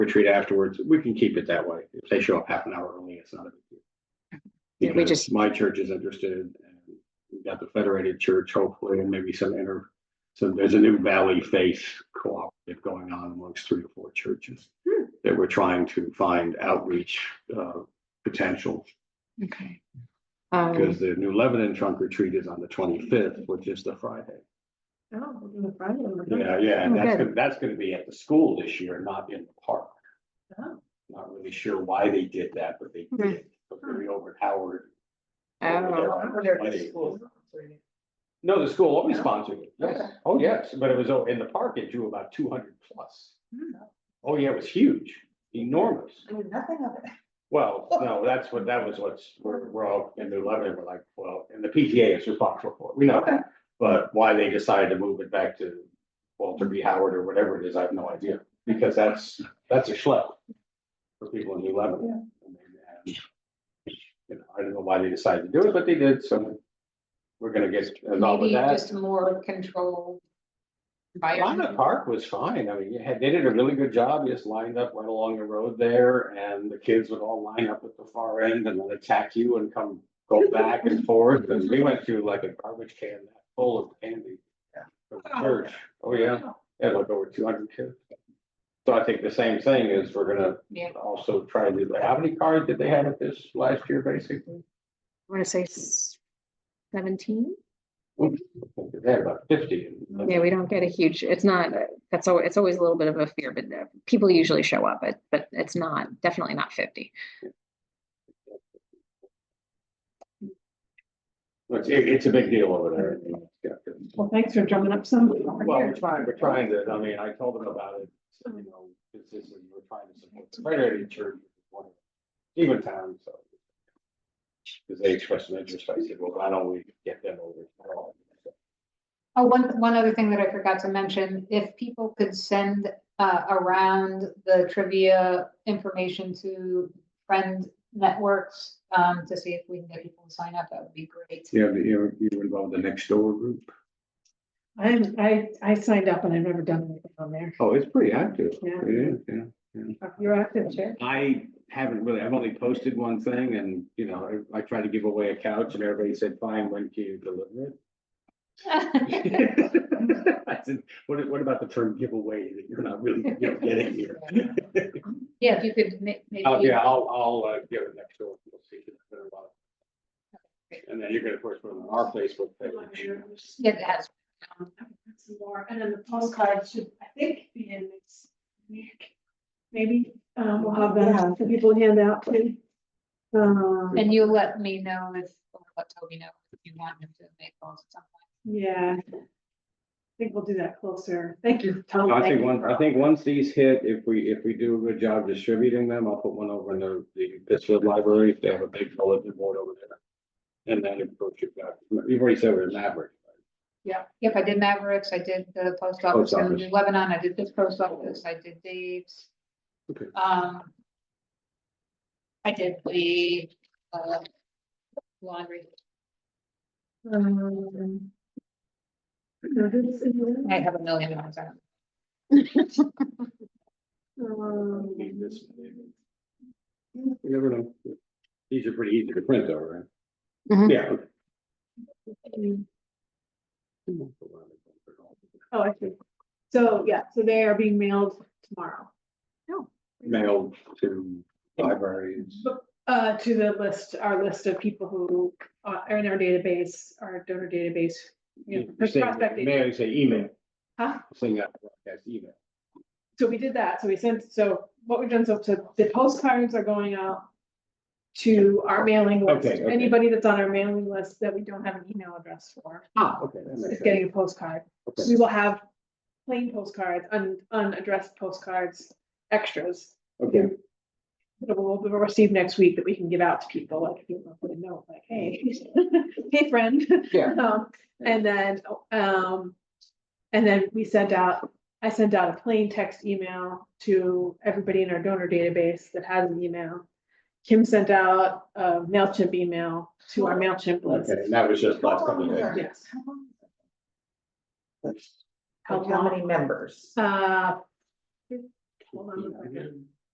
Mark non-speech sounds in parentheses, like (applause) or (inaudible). retreat afterwards, we can keep it that way. If they show up half an hour early, it's not a big deal. Yeah, we Because just- my church is interested, and we've got the Federated Church hopefully, and maybe some inter, so there's a new Valley Faith Cooperative going on amongst three or four churches Hmm. that we're trying to find outreach, uh, potential Okay. Um, because the New Lebanon trunk retreat is on the twenty-fifth, which is the Friday. Oh, we're doing a Friday one, we're doing- Yeah, yeah, Oh, and that's, good. gonna- that's gonna be at the school this year, not in the park. Oh. Not really sure why they did that, but they Hmm. did, but they're over at Howard. oh, We're there at the Friday. school. No, the school always Yeah. sponsored it, yes, Okay. oh, yes, but it was o- in the park, it drew about two hundred plus. Hmm. Oh, yeah, it was huge, enormous. I knew nothing of it. Well, no, that's what, that was what's, we're, we're all in New Lebanon, we're like, well, and the PTA is responsible for it, we know. Okay. But why they decided to move it back to Walter B. Howard or whatever it is, I have no idea, because that's, that's a schlep. For people in New Lebanon. And, You know, I don't know why they decided to do it, but they did, so. We're gonna get involved with Maybe that. just more controlled. Lana environment. Park was fine. I mean, you had, they did a really good job. You just lined up right along the road there and the kids would all line up at the far end and then attack you and come go back and forth. And we went through like a garbage can full of candy. Yeah. from the Church. Oh, yeah. Had like over two hundred kids. So I think the same thing is we're gonna Yeah. also try to, do. how many cards did they have at this last year, basically? I want to say s- seventeen? I think They had about fifty. and- Yeah, we don't get a huge, it's not, uh, that's al- it's always a little bit of a fear, but uh, people usually show up, but, but it's not, definitely not fifty. It's, it's a big deal over there. It's got good- Well, thanks for drumming up some. Well, we're trying, we're trying to, I mean, I told them about it, so, you know, consistently, we're trying to support the Federated Church. one of Even town, so. Because they expressed an interest, I said, well, why don't we get them over? at all? Oh, one, one other thing that I forgot to mention, if people could send, uh, around the trivia information to friend networks, um, to see if we can get people to sign up, that would be great. Yeah, but you, you were involved in the next door group? I, haven't- I, I signed up and I've never done anything on there. Oh, it's pretty active. Yeah. It is, yeah. You're active, Chair. I haven't really, I've only posted one thing and, you know, I I tried to give away a couch and everybody said, fine, when can you deliver it? (laughs) I said, what, what about the term giveaway that you're not really, you know, getting here? (laughs) Yeah, if you could ma- Oh, maybe, yeah, I'll, I'll, uh, give it next door. We'll see. And then you're gonna, of course, put it on our Facebook page. yeah, it has, Some more, and then the postcard should, I think, be in next week. Maybe, um, we'll have that for people to hand out, please. Um, and you let me know if, or let Toby know if you want him to make those at some point. yeah. I think we'll do that closer. Thank you, Tom. I Thank think you once, for I all think once these hit, if we, if we do a good job distributing them, I'll put one over in the, the Pittsfield Library, if they have a big bulletin board over there. And then approach it back. You've already said we're Maverick. Yep, I did Mavericks, I did the post office Post in office. Lebanon, I did this post office, I did Dave's. Okay. Um. I did the, uh, laundry, Um, no, this is- I have a million ones on. um, Need this. You never know. These are pretty easy to print though, right? Mhm. Yeah. okay. Oh, I see. So, yeah, so they are being mailed tomorrow, Mailed to libraries. uh, to the list, our list of people who uh, are in our database, our donor database. you know, You're saying prospecting. Mail, you say email. Huh? Saying that, that's email. So we did that, so we sent, so what we've done, so to, the postcards are going out to our mailing list. Okay, okay. Anybody that's on our mailing list that we don't have an email address for Ah, okay. that makes is sense. getting a postcard. Okay. We will have plain postcards, un- unaddressed postcards, extras. Okay, that we'll, we'll receive next week that we can give out to people, like, if you want to put a note, like, hey, (laughs) hey, friend. Yeah. (laughs) Um, And then, um, and then we sent out, I sent out a plain text email to everybody in our donor database that has an email. Kim sent out a MailChimp email to our MailChimp list. okay, and that was just last couple of days. Yes. How many members? Uh, hold on a second.